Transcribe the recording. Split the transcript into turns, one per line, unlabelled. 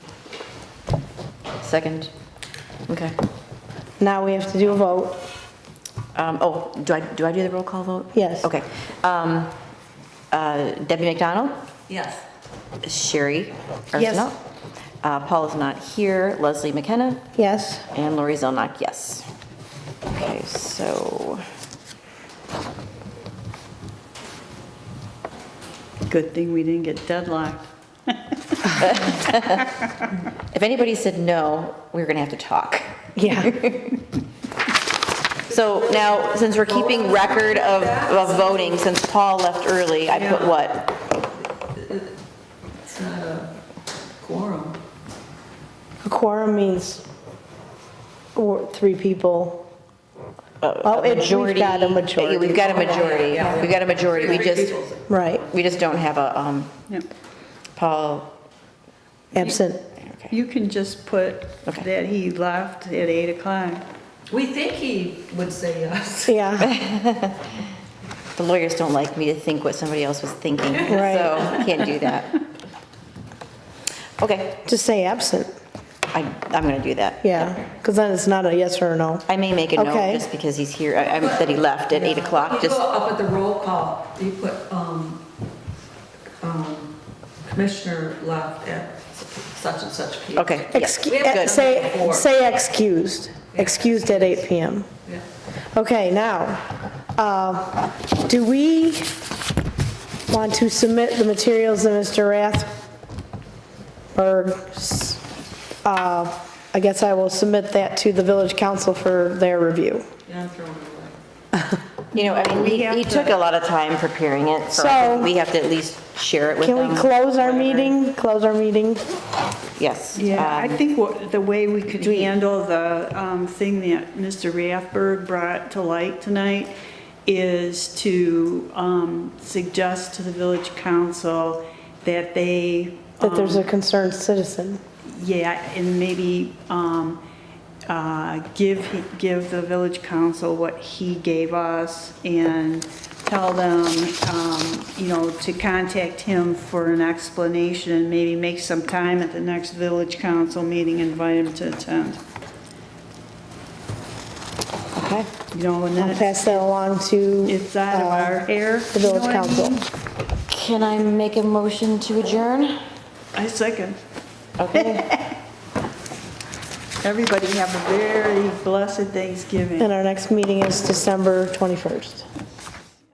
Second. Okay.
Now we have to do a vote.
Um, Oh, do I, do I do the roll call vote?
Yes.
Okay. Um, uh, Debbie McDonald?
Yes.
Sherry
Yes.
Arsenault? Uh, Paul is not here. Leslie McKenna?
Yes.
And Lori Zelnok, yes. Okay, so.
Good thing we didn't get deadlocked.
If anybody said no, we were going to have to talk.
Yeah.
So now, since we're keeping record of, of voting, since Paul left early, I put what?
It's not a quorum.
A quorum means or- three people. Oh, it- we've got a majority.
Yeah, We've got a majority. We've got a majority. We just,
Right.
we just don't have a, um, Paul,
Absent.
okay.
You can just put
Okay.
that he left at 8 o'clock.
We think he would say yes.
Yeah.
The lawyers don't like me to think what somebody else was thinking,
Right.
so can't do that. Okay,
Just say absent.
I, I'm going to do that.
Yeah. Because then it's not a yes or a no.
I may make a note
Okay.
just because he's here, I- I'm- that he left at 8 o'clock,
You
just,
go up at the roll call, you put, um, um, Commissioner left at such and such people.
okay. yeah.
Excu-
We have
eh,
to-
Say, say excused. Excused at 8 PM.
Yeah.
Okay, now, uh, do we want to submit the materials that Mr. Rathberg, s- uh, I guess I will submit that to the village council for their review.
Yeah, I'm throwing it away.
You know, I mean, he- he took a lot of time preparing it, so I
So-
think we have to at least share it with them.
Um,
Can we close our meeting? Close our meeting?
Yes.
Yeah, I
um,
think what- the way we could handle the um, thing that Mr. Rathberg brought to light tonight is to um, suggest to the village council that they
That there's
Um,
a concerned citizen.
Yeah, and maybe um, uh, give, give the village council what he gave us and tell them, um, you know, to contact him for an explanation and maybe make some time at the next village council meeting, invite him to attend.
Okay.
You know, and
I'll
then it's-
pass that along to.
it's out of
uh,
our hair.
The village council.
Can I make a motion to adjourn?
I second.
Okay.
Everybody have a very blessed Thanksgiving.
And our next meeting is December 21st.